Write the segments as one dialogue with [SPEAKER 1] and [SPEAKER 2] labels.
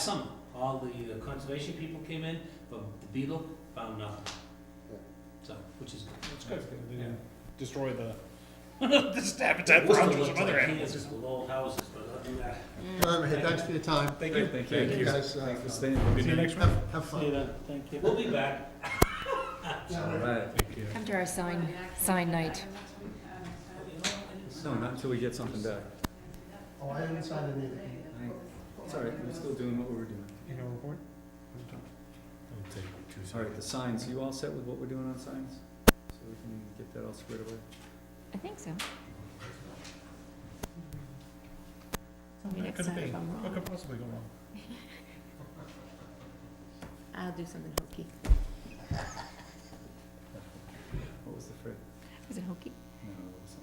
[SPEAKER 1] summer, all the uh, conservation people came in, but the beetle found nothing.
[SPEAKER 2] Yeah.
[SPEAKER 1] So, which is good.
[SPEAKER 3] That's good, they
[SPEAKER 1] Yeah.
[SPEAKER 3] didn't destroy the, this habitat for
[SPEAKER 1] Worcester
[SPEAKER 3] hunters
[SPEAKER 1] looked
[SPEAKER 3] and other
[SPEAKER 1] like
[SPEAKER 3] animals.
[SPEAKER 1] Kansas with old houses, but uh, other than that.
[SPEAKER 2] All right, thanks for your time.
[SPEAKER 3] Thank you.
[SPEAKER 2] Thank you guys. uh,
[SPEAKER 4] Thanks for staying.
[SPEAKER 3] See you next week.
[SPEAKER 2] Have, have fun.
[SPEAKER 3] then, thank
[SPEAKER 1] We'll be back.
[SPEAKER 4] All right.
[SPEAKER 5] Come to our sign, sign night.
[SPEAKER 4] No, not until we get something back.
[SPEAKER 2] Oh, I haven't signed anything.
[SPEAKER 4] It's all right, we're still doing what we were doing. All right, the signs, you all set with what we're doing on signs? So we can get that all squared away?
[SPEAKER 5] I think so. Tell me
[SPEAKER 3] That
[SPEAKER 5] next
[SPEAKER 3] could
[SPEAKER 5] time
[SPEAKER 3] be.
[SPEAKER 5] if I'm
[SPEAKER 3] What
[SPEAKER 5] wrong.
[SPEAKER 3] could possibly go wrong?
[SPEAKER 5] I'll do something hokey.
[SPEAKER 4] What was the phrase?
[SPEAKER 5] Was it hokey?
[SPEAKER 4] No, it was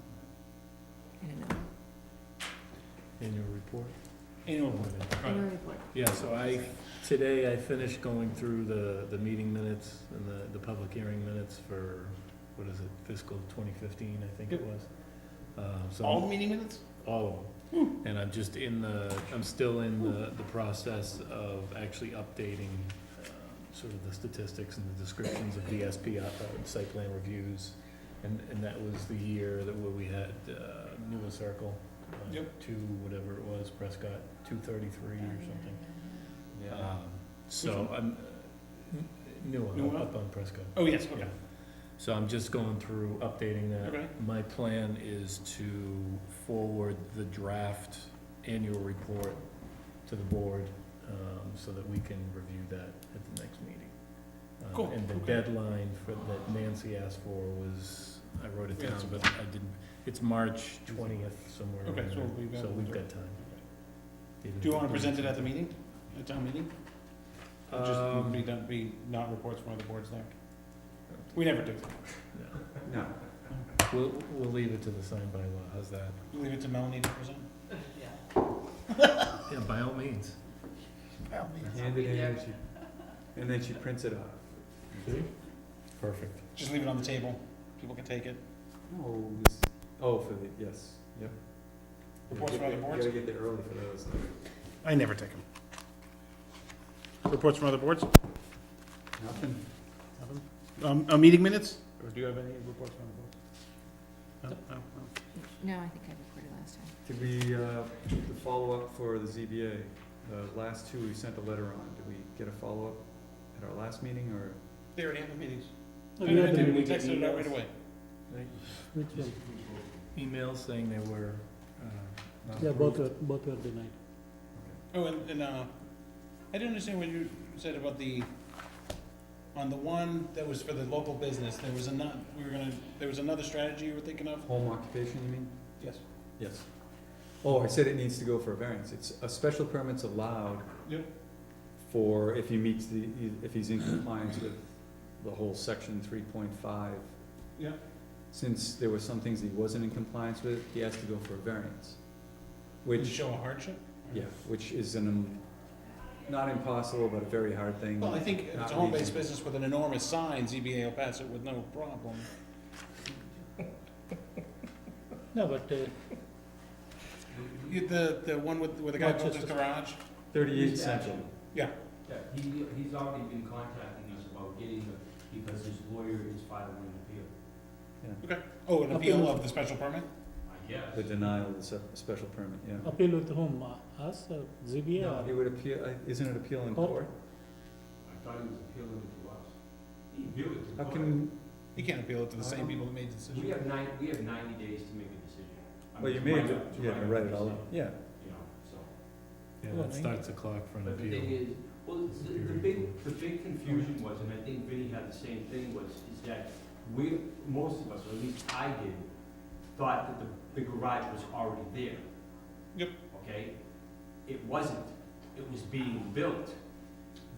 [SPEAKER 4] something.
[SPEAKER 5] I don't know.
[SPEAKER 6] Annual report?
[SPEAKER 3] Annual
[SPEAKER 5] Annual report.
[SPEAKER 6] Yeah, so I, today I finished going through the, the meeting minutes and the, the public hearing minutes for, what is it, fiscal twenty fifteen, I think it was. Um, so,
[SPEAKER 3] All
[SPEAKER 6] all
[SPEAKER 3] the meeting minutes? Hmm.
[SPEAKER 6] of them. And I'm just in the, I'm still in the, the process of actually updating um, sort of the statistics and the descriptions of the SP, uh, site plan reviews. And, and that was the year that where we had, uh, Newell Circle. uh,
[SPEAKER 3] Yep.
[SPEAKER 6] Two, whatever it was, Prescott, two thirty-three or something.
[SPEAKER 4] Yeah.
[SPEAKER 6] Um, So
[SPEAKER 3] Which
[SPEAKER 6] I'm, new
[SPEAKER 3] New
[SPEAKER 6] one,
[SPEAKER 3] one?
[SPEAKER 6] up on Prescott.
[SPEAKER 3] Oh, yes, okay,
[SPEAKER 6] Yeah. So I'm just going through, updating that.
[SPEAKER 3] okay.
[SPEAKER 6] My plan is to forward the draft annual report to the board um, so that we can review that at the next meeting. Um,
[SPEAKER 3] Cool,
[SPEAKER 6] And the
[SPEAKER 3] okay.
[SPEAKER 6] deadline for, that Nancy asked for was, I wrote it
[SPEAKER 3] Yeah,
[SPEAKER 6] down,
[SPEAKER 3] it's-
[SPEAKER 6] but I didn't, it's March twentieth somewhere.
[SPEAKER 3] Okay,
[SPEAKER 6] around
[SPEAKER 3] so
[SPEAKER 6] there.
[SPEAKER 3] we've got-
[SPEAKER 6] So we've got time.
[SPEAKER 3] Do you wanna present it at the meeting, at town meeting? Or Just
[SPEAKER 6] Um,
[SPEAKER 3] be done, be not reports from other boards there? We never do that.
[SPEAKER 6] no.
[SPEAKER 4] No,
[SPEAKER 6] We'll, we'll leave it to the sign by law, how's that?
[SPEAKER 3] Leave it to Melanie to present.
[SPEAKER 6] Yeah, by all means.
[SPEAKER 4] hand it in, she- and then she prints it off.
[SPEAKER 6] Perfect.
[SPEAKER 3] Just leave it on the table, people can take it.
[SPEAKER 4] No, this, oh, for the, yes, yep.
[SPEAKER 3] Reports
[SPEAKER 4] You
[SPEAKER 3] from other
[SPEAKER 4] gotta-
[SPEAKER 3] boards?
[SPEAKER 4] You gotta get there early for those.
[SPEAKER 3] I never take them. Reports from other boards?
[SPEAKER 4] Nothing.
[SPEAKER 3] Um, uh, meeting minutes? Or do you have any reports from other boards? No, no, no.
[SPEAKER 5] No, I think I recorded last time.
[SPEAKER 4] Did we, uh, the follow-up for the ZBA, the last two we sent a letter on, did we get a follow-up at our last meeting, or?
[SPEAKER 3] They already have the meetings.
[SPEAKER 6] No, you have to
[SPEAKER 3] We
[SPEAKER 6] make it
[SPEAKER 3] texted it out right
[SPEAKER 6] emails.
[SPEAKER 3] away.
[SPEAKER 6] Emails saying they were, uh,
[SPEAKER 4] not
[SPEAKER 6] Yeah, both
[SPEAKER 4] approved?
[SPEAKER 6] both were denied.
[SPEAKER 3] Oh, and, and, uh, I didn't understand what you said about the, on the one that was for the local business, there was another, we were gonna, there was another strategy you were thinking of?
[SPEAKER 4] Home occupation, you mean?
[SPEAKER 3] Yes.
[SPEAKER 4] Yes. Oh, I said it needs to go for a variance. It's, a special permit's allowed.
[SPEAKER 3] Yep.
[SPEAKER 4] For if he meets the, if he's in compliance with the whole section three point five.
[SPEAKER 3] Yeah.
[SPEAKER 4] Since there were some things he wasn't in compliance with, he has to go for a variance.
[SPEAKER 3] To
[SPEAKER 4] Which,
[SPEAKER 3] show a hardship?
[SPEAKER 4] yeah, which is an, um, not impossible, but a very hard thing.
[SPEAKER 3] Well, I think if it's a home-based business with an enormous sign, ZBA will pass it with no problem.
[SPEAKER 6] No, but, uh,
[SPEAKER 3] You- The, the one with, where the guy built his garage?
[SPEAKER 4] Thirty-eight central.
[SPEAKER 3] Yeah.
[SPEAKER 1] Yeah, he, he's already been contacting us about getting the, because his lawyer is filing an appeal,
[SPEAKER 3] Okay. Oh, an appeal of the special permit?
[SPEAKER 1] I guess.
[SPEAKER 4] The denial of the se- special permit, yeah.
[SPEAKER 6] appeal with whom, Uh, us, ZBA
[SPEAKER 4] No, He would appeal, uh, isn't it appeal in
[SPEAKER 6] Oh.
[SPEAKER 4] court?
[SPEAKER 1] I thought he was appealing it to us. He appealed it to
[SPEAKER 4] How
[SPEAKER 3] Oh,
[SPEAKER 1] us.
[SPEAKER 4] can,
[SPEAKER 3] You can't appeal it to the same people that made the
[SPEAKER 1] We
[SPEAKER 3] decision.
[SPEAKER 1] have nine, we have ninety days to make a decision. I
[SPEAKER 4] well, you
[SPEAKER 1] mean,
[SPEAKER 4] made,
[SPEAKER 1] to
[SPEAKER 4] it.
[SPEAKER 1] write up- to
[SPEAKER 4] yeah,
[SPEAKER 1] write up
[SPEAKER 4] right,
[SPEAKER 1] the
[SPEAKER 4] I'll,
[SPEAKER 1] decision,
[SPEAKER 4] yeah.
[SPEAKER 1] You know, so.
[SPEAKER 6] Yeah, that starts the clock for an
[SPEAKER 1] But the thing
[SPEAKER 6] appeal.
[SPEAKER 1] is, well, the, the big, the big confusion was, and I think Vinnie had the same thing, was, is that we, most of us, or at least I did, thought that the, the garage was already there.
[SPEAKER 3] Yep.
[SPEAKER 1] Okay? It wasn't, it was being built.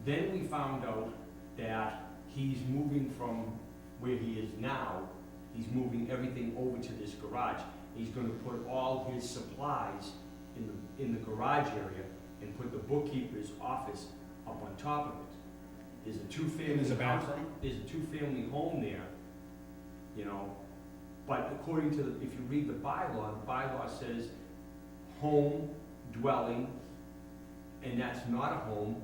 [SPEAKER 1] Then we found out that he's moving from where he is now, he's moving everything over to this garage. He's gonna put all his supplies in the, in the garage area, and put the bookkeeper's office up on top of it. There's a two-family.
[SPEAKER 3] And there's a
[SPEAKER 1] house-
[SPEAKER 3] bathroom?
[SPEAKER 1] There's a two-family home there, you know, but according to, the if you read the bylaw, the bylaw says home, dwelling,
[SPEAKER 7] and that's not a home,